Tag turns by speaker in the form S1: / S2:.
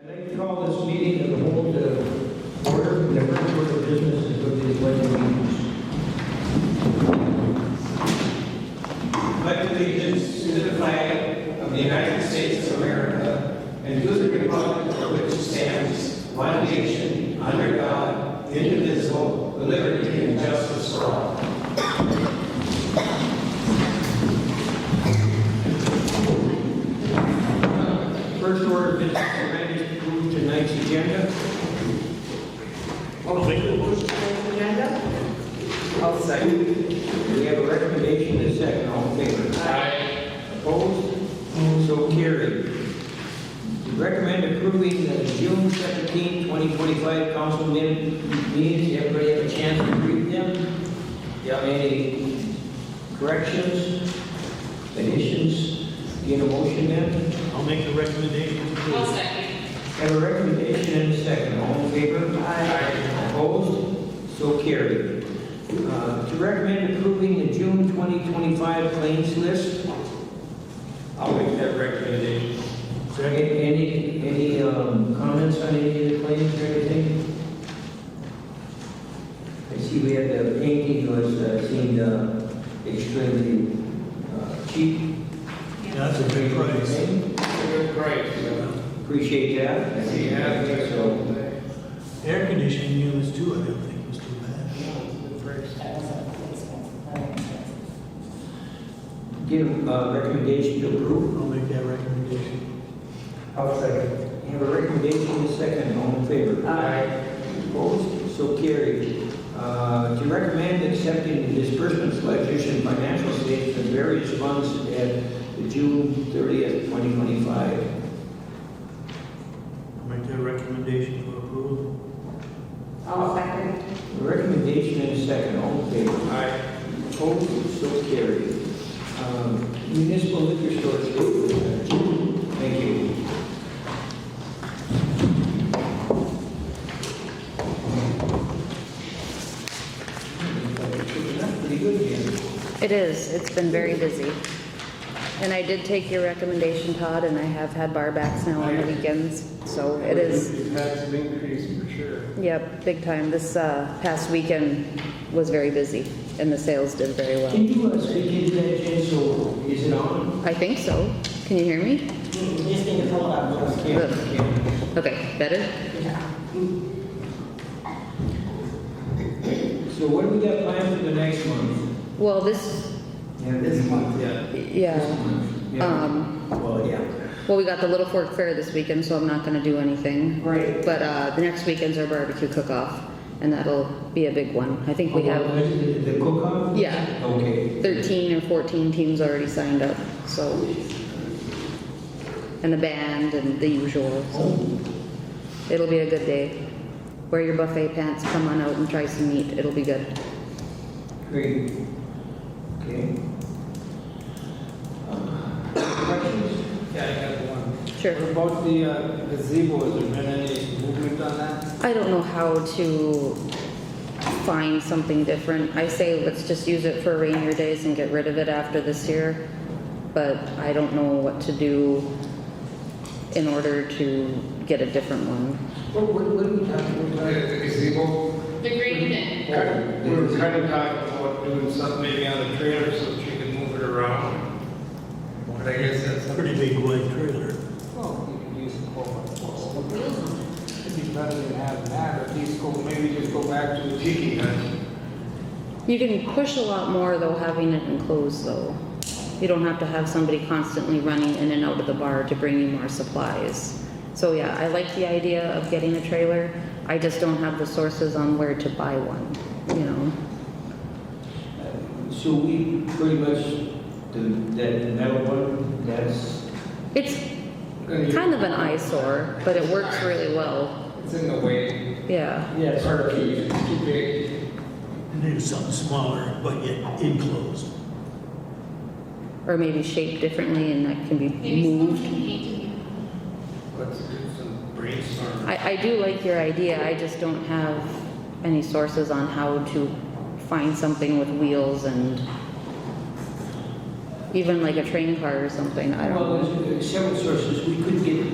S1: I'd like to call this meeting of the whole to order, the first order of business is with the pledge of allegiance.
S2: pledge allegiance to the flag of the United States of America and to the republic for which it stands, one nation, under God, indivisible, with liberty and justice for all.
S1: First order of business, the ready to approve tonight's agenda.
S3: I'll make the motion.
S4: Agenda?
S1: I'll second. We have a recommendation and a second, all in favor? Opposed? So carried. Recommend approving the June 17, 2025 council min- meetings. Everybody have a chance to read them? Do you have any corrections, additions? Get a motion then?
S3: I'll make the recommendation.
S4: I'll second.
S1: Have a recommendation and a second. All in favor? Aye. Opposed? So carried. Uh, To recommend approving the June 2025 claims list.
S2: I'll make that recommendation.
S1: Any, any, any um, comments on any of the claims or anything? I see we had the painting was, uh, seemed uh, extremely uh, cheap.
S3: That's a big price.
S2: Good, great.
S1: Appreciate that. So,
S3: Air conditioning units too, I don't think was too bad.
S1: Give a recommendation to approve.
S3: I'll make that recommendation.
S1: I'll second. You have a recommendation in second, all in favor?
S4: Aye.
S1: Opposed? So carried. Uh, To recommend accepting the disbursement ledgers and financial statements of various funds at the June 30th, 2025.
S3: I'll make that recommendation for approval.
S4: I'll second.
S1: A Recommendation in second, all in favor?
S2: Aye.
S1: Opposed? So carried. Um, Municipal liquor stores. Thank you. Pretty good here.
S5: It is, it's been very busy. And I did take your recommendation, Todd, and I have had bar backs now on the weekends, so it is,
S2: You've had some increase for sure.
S5: yep, big time. This uh, past weekend was very busy, and the sales did very well.
S1: Can you uh, speak into that, Jen, so is it on?
S5: I think so. Can you hear me?
S1: Just need to pull it up. Can't,
S5: Okay, better?
S1: can't. So what do we got planned for the next month?
S5: Well, this,
S1: Yeah, this month, yeah.
S5: yeah, um,
S1: Well, yeah.
S5: well, we got the Little Fork Fair this weekend, so I'm not gonna do anything.
S1: Right.
S5: But uh, the next weekend's our barbecue cook-off, and that'll be a big one. I think we have,
S1: Oh, The the cook-off?
S5: yeah,
S1: Okay.
S5: 13 or 14 teams already signed up, so. And the band and the usual, so.
S1: Oh,
S5: It'll be a good day. Wear your buffet pants, come on out and try some meat, it'll be good.
S1: Great. Okay. Um, Questions?
S2: Yeah, I got one.
S5: Sure.
S2: What about the uh, gazebo, has there been any movement on that?
S5: I don't know how to find something different. I say let's just use it for rainier days and get rid of it after this year, but I don't know what to do in order to get a different one.
S1: What, what what are we talking
S2: Uh,
S1: about?
S2: The gazebo?
S4: The green bin.
S2: We were kind of talking about doing something maybe on the trailer so that you can move it around. But I guess that's.
S3: Pretty big white trailer.
S2: Well, you can use the four by four. It'd be better than having that, or at least go, maybe just go back to the tiki hut.
S5: You can push a lot more though having it enclosed though. You don't have to have somebody constantly running in and out of the bar to bring you more supplies. So yeah, I like the idea of getting a trailer. I just don't have the sources on where to buy one, you know?
S1: uh, So we pretty much, the, that metal one, that's,
S5: It's kind of an eyesore, but it works really well.
S2: It's in the way.
S5: Yeah,
S1: yeah, it's hard to
S2: It's too big.
S3: Do something smaller, but yet enclosed.
S5: or maybe shaped differently and that can be
S4: Maybe someone
S5: moved.
S4: can paint it.
S2: Let's do some brainstorming.
S5: I, I do like your idea, I just don't have any sources on how to find something with wheels and even like a train car or something, I don't know.
S1: Well, there's uh, several sources, we could get